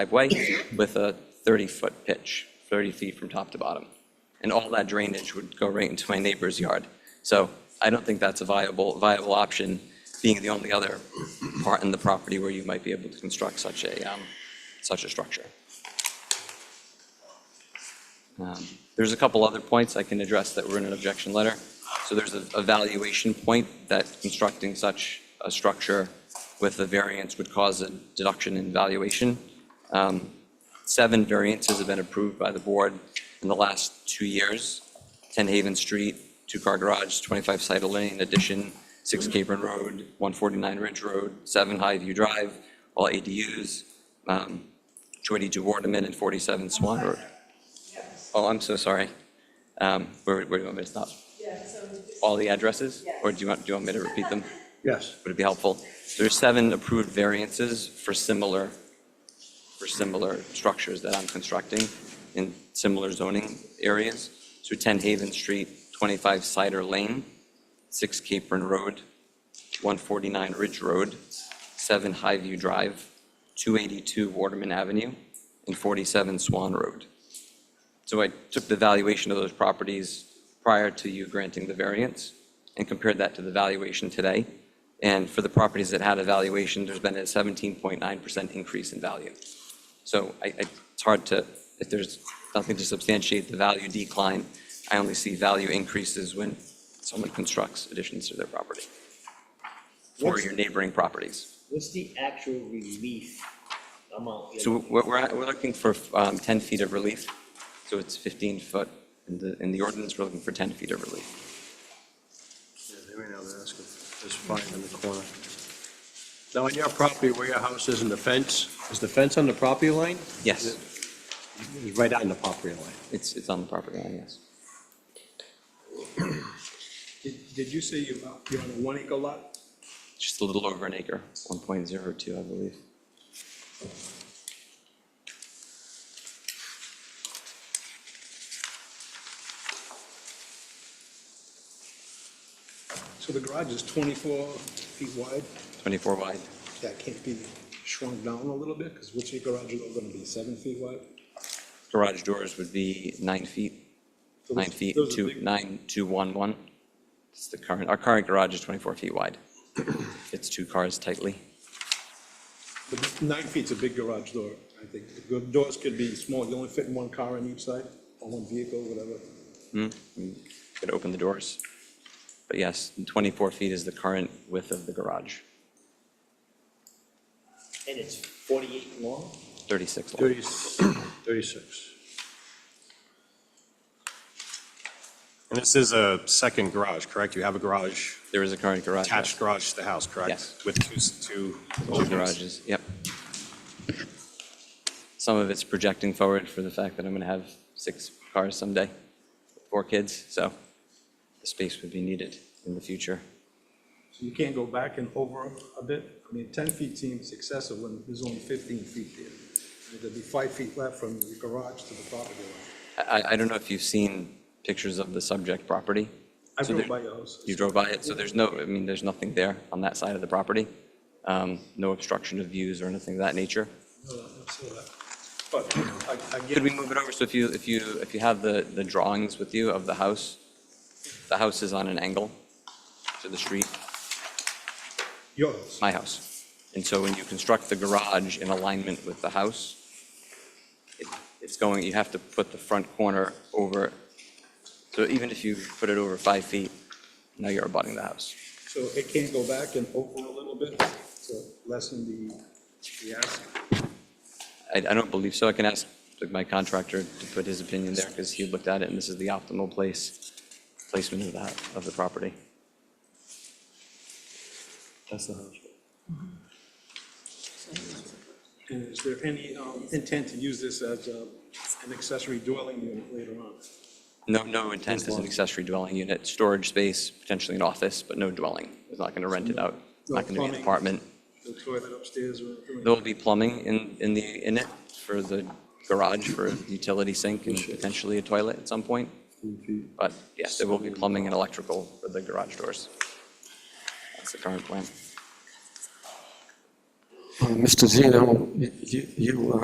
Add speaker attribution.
Speaker 1: driveway with a 30-foot pitch, 30 feet from top to bottom. And all that drainage would go right into my neighbor's yard. So I don't think that's a viable, viable option, being the only other part in the property where you might be able to construct such a, um, such a structure. Um, There's a couple other points I can address that were in an objection letter. So there's a a valuation point that constructing such a structure with a variance would cause a deduction in valuation. Um, Seven variances have been approved by the board in the last two years. 10 Haven Street, two-car garage, 25 Cider Lane addition, 6 Capron Road, 149 Ridge Road, 7 Highview Drive, all ADUs, um, 282 Wardeman and 47 Swan Road. Oh, I'm so sorry. Um, Where where do you want me to stop?
Speaker 2: Yeah, so it's-
Speaker 1: All the addresses? Or do you want, do you want me to repeat them?
Speaker 3: Yes.
Speaker 1: Would it be helpful? There's seven approved variances for similar, for similar structures that I'm constructing in similar zoning areas. So 10 Haven Street, 25 Cider Lane, 6 Capron Road, 149 Ridge Road, 7 Highview Drive, 282 Waterman Avenue, and 47 Swan Road. So I took the valuation of those properties prior to you granting the variance and compared that to the valuation today. And for the properties that had a valuation, there's been a 17.9% increase in value. So I, I- it's hard to, if there's nothing to substantiate the value decline, I only see value increases when someone constructs additions to their property or
Speaker 4: What's-
Speaker 1: your neighboring properties.
Speaker 4: What's the actual relief amount?
Speaker 1: So we're, we're we're looking for um, 10 feet of relief, so it's 15 foot. In the, in the ordinance, we're looking for 10 feet of relief.
Speaker 3: Yeah, They may not ask them. There's five in the corner. Now, on your property where your house is and the fence, is the fence on the property line?
Speaker 1: Yes,
Speaker 3: It's right on the property line.
Speaker 1: it's, it's on the property line, yes.
Speaker 5: Did, did you say you, you're on a one acre lot?
Speaker 1: Just a little over an acre, 1.02, I believe.
Speaker 5: So the garage is twenty-four feet wide?
Speaker 1: 24 wide.
Speaker 5: That can't be shrunk down a little bit, because what's your garage door gonna be, seven feet wide?
Speaker 1: Garage doors would be nine feet,
Speaker 5: So
Speaker 1: nine
Speaker 5: those-
Speaker 1: feet,
Speaker 5: those are
Speaker 1: two,
Speaker 5: big-
Speaker 1: nine, two, one, one. It's the current, our current garage is 24 feet wide. Fits two cars tightly.
Speaker 5: the big- Nine feet's a big garage door, I think. The go- doors could be small, you only fit in one car on each side, or one vehicle, whatever.
Speaker 1: Could open the doors. But yes, 24 feet is the current width of the garage,
Speaker 4: And it's forty-eight long?
Speaker 1: 36 long.
Speaker 3: 30 36.
Speaker 6: And this is a second garage, correct? You have a garage,
Speaker 1: There is a current garage. yes.
Speaker 6: attached garage to the house, correct?
Speaker 1: Yes.
Speaker 6: With two, s- two
Speaker 1: Two
Speaker 6: openings.
Speaker 1: garages, yep. Some of it's projecting forward for the fact that I'm going to have six cars someday, four kids, so the space would be needed in the future.
Speaker 5: So you can't go back and over a bit? I mean, ten feet seems excessive when there's only fifteen feet there. I mean, There'd be five feet left from the garage to the property line.
Speaker 1: I, I don't know if you've seen pictures of the subject property.
Speaker 5: I
Speaker 1: So
Speaker 5: drove
Speaker 1: there-
Speaker 5: by your house.
Speaker 1: You drove by it, so there's no, I mean, there's nothing there on that side of the property, um, no obstruction of views or anything of that nature.
Speaker 5: No, I saw that. But I, I get.
Speaker 1: Could we move it over? So if you, if you, if you have the, the drawings with you of the house, the house is on an angle to the street.
Speaker 5: Your house.
Speaker 1: my house. And so when you construct the garage in alignment with the house, it- it's going, you have to put the front corner over, so even if you put it over five feet, now you're abutting the house.
Speaker 5: So it can't go back and open a little bit to lessen the, the ask?
Speaker 1: I, I don't believe so. I can ask my contractor to put his opinion there because he looked at it and this is the optimal place, placement of that, of the property.
Speaker 3: That's the house.
Speaker 5: And is there any um, intent to use this as uh, an accessory dwelling unit later on?
Speaker 1: No, no intent as an accessory dwelling unit, storage space, potentially an office, but no dwelling. It's not going to rent it out. It's not going to be an
Speaker 5: Plumbing.
Speaker 1: apartment.
Speaker 5: The toilet upstairs or? anything?
Speaker 1: There will be plumbing in, in the, in it for the garage, for a utility sink and potentially a toilet at some point. But yes, there will be plumbing and electrical for the garage doors. That's the current plan.
Speaker 7: Uh, Mr. Zeno, you- you, you uh,